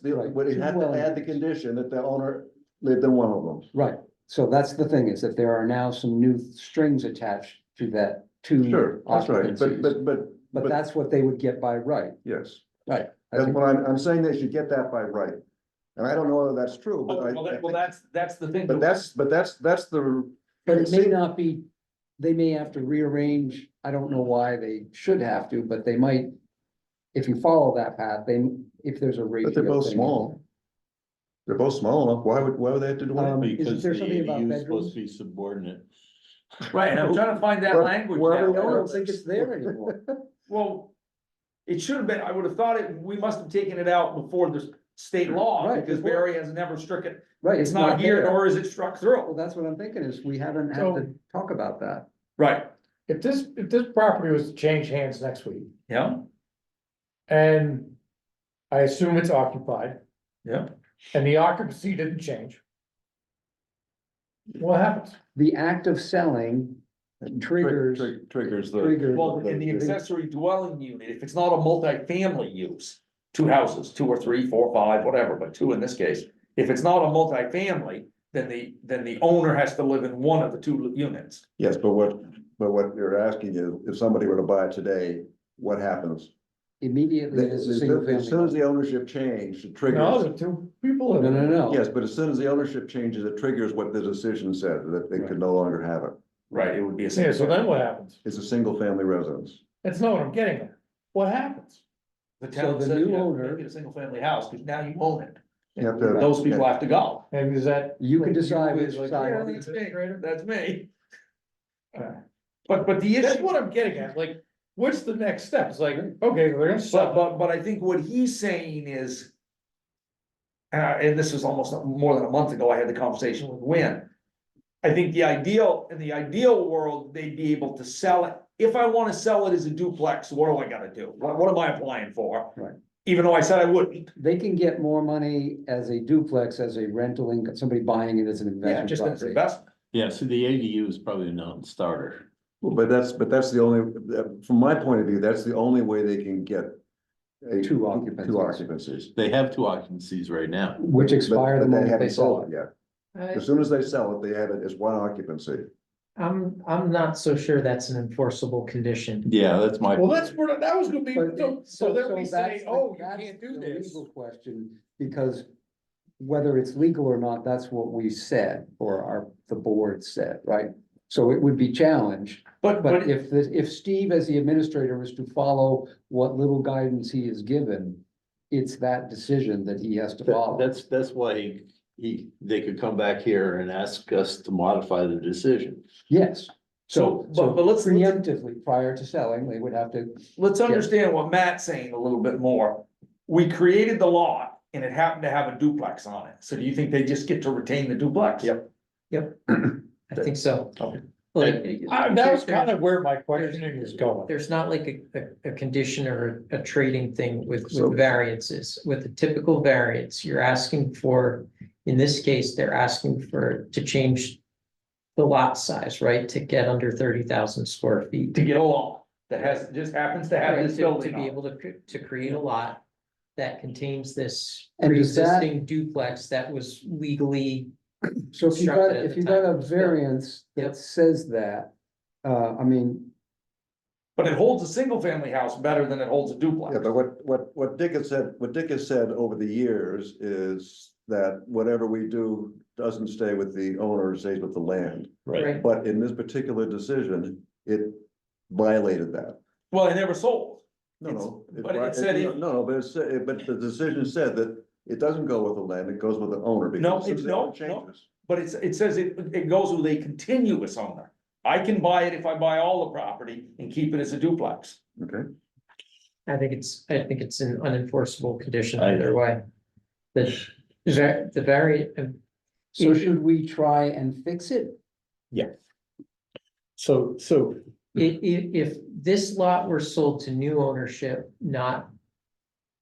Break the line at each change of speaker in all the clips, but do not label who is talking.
the,
Right.
would
Two
have to add the
dwellings.
condition that the owner lived in one of them.
Right, so that's the thing, is that there are now some new strings attached to that two
Sure, that's right, but,
occupancies.
but, but,
But that's what they would get by right.
yes,
I
that's
think-
what I'm, I'm saying they should get that by right. And I don't know whether that's true, but I,
Well,
I
that,
think-
well, that's, that's the thing.
but that's, but that's, that's the,
But it may not be, they may have to rearrange, I don't know why they should have to, but they might. If you follow that path, then if there's a ratio.
but they're both
thing-
small. They're both small enough, why would, why would they have to do
Um,
one?
isn't
Because the
there something about
ADU is supposed
bedrooms?
to be subordinate.
Right, and I'm trying to find that
Well,
language.
wherever
that-
we
No, I
are.
don't think it's there anymore.
Well, it should have been, I would have thought it, we must have taken it out before the state law,
Right,
because
before.
Barry has never struck it.
Right,
It's not here,
there.
nor is it struck
Well,
through.
that's what I'm thinking is we haven't had to talk about that.
Right.
If this, if this property was to change hands next week,
Yeah,
and I assume it's occupied,
yeah.
and the occupancy didn't change. What happens?
The act of selling triggers,
Tri- Triggers the,
triggers.
Well, in the accessory dwelling unit, if it's not a multifamily use, two houses, two or three, four, five, whatever, but two in this case. If it's not a multifamily, then the, then the owner has to live in one of the two units.
yes, but what, but what you're asking is, if somebody were to buy it today, what happens?
Immediately,
As
it's a single
soon as soon as
family.
the ownership changed, it triggers.
No, the two people.
No,
live in
no,
it.
no.
Yes, but as soon as the ownership changes, it triggers what the decision said, that they could no longer have it.
Right, it would be a.
Yeah, so then what happens?
It's a single family residence.
That's not what I'm getting at. What happens?
The
So
town
the
said,
new
you know,
owner-
make it a single family house, because now you own it.
You have to-
Those people have to go.
And is that?
You can
like,
decide
you
which
like,
side.
yeah, that's me.
That's me.
Alright.
But, but the
That's
issue,
what I'm getting at, like, what's the next step? It's like, okay, they're gonna
but,
sell,
but, but I think what he's saying is. Uh, and this was almost more than a month ago, I had the conversation with Wynn. I think the ideal, in the ideal world, they'd be able to sell it. If I wanna sell it as a duplex, what do I gotta do? What, what am I applying for?
Right.
Even though I said I wouldn't,
They can get more money as a duplex, as a rental income, somebody buying it as an
yeah,
investment
just as an
property.
investment.
Yeah, so the ADU is probably a non-starter.
Well, But that's, but that's the only, that- from my point of view, that's the only way they can get. a-
Two occupancies.
Two occupancies.
They have two occupancies right now.
Which expire
But- but
the moment
haven't
they sell
sold
it.
yet.
I,
As soon as they sell it, they have it as one occupancy.
I'm, I'm not so sure that's an enforceable condition.
Yeah, that's my.
well, that's where, that was gonna be,
But
so-
it-
so then we
that's
say,
the-
oh, you
that's
can't do
the
this.
legal Question, because whether it's legal or not, that's what we said, or our, the board said, right? So it would be challenged,
But, but
but if, the- if Steve as the administrator was to follow what little guidance he is given, it's that decision that he has to
That-
follow.
That's, that's why he, he, they could come back here and ask us to modify the decision.
Yes,
So,
so,
but, but
so
let's, let's-
preemptively, prior to selling, they would have to,
let's understand what Matt's saying a little bit more. We created the lot and it happened to have a duplex on it. So do you think they just get to retain the duplex? Yep.
I think so.
Okay.
Like.
I- that was kind of where my questioning was going.
There's not like a, a, a condition or a a trading thing with,
So-
with variances. With the typical variance, you're asking for, in this case, they're asking for, to change the lot size, right? To get under thirty thousand square feet.
To get a lot that has, just happens to have
Right,
this
To to
building
be
on it.
able to, cre- to create a lot that contains this
And does that-
pre-existing duplex that was legally
so if you got,
Constructed at
if
the
you got a
time.
variance
Yep.
that says that, uh, I mean,
But it holds a single family house better than it holds a duplex.
Yeah, but what, what, what Dick has said, what Dick has said over the years is that whatever we do doesn't stay with the owner, it stays with the land.
Right.
But in this particular decision, it violated that.
Well, it never sold.
No,
It's-
no.
but it
vi-
said
no,
it-
No, no, but it's, it- but the decision said that it doesn't go with the land, it goes with the owner. because
No,
as soon
it's-
as the owner
no, no.
changes-
But it's, it says it, it goes with a continuous owner. I can buy it if I buy all the property and keep it as a duplex.
Okay,
I think it's, I think it's an unenforceable condition
I
either
know.
way. The, the uh, the very,
so should we try and fix it?
So, so
i- i- if this lot were sold to new ownership, not in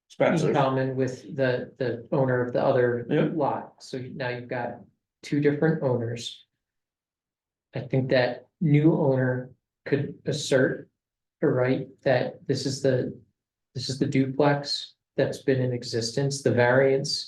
Spencer,
common with the, the owner of the other
Yeah.
lot, so now you've got two different owners. I think that new owner could assert a right that this is the, this is the duplex that's been in existence, the variance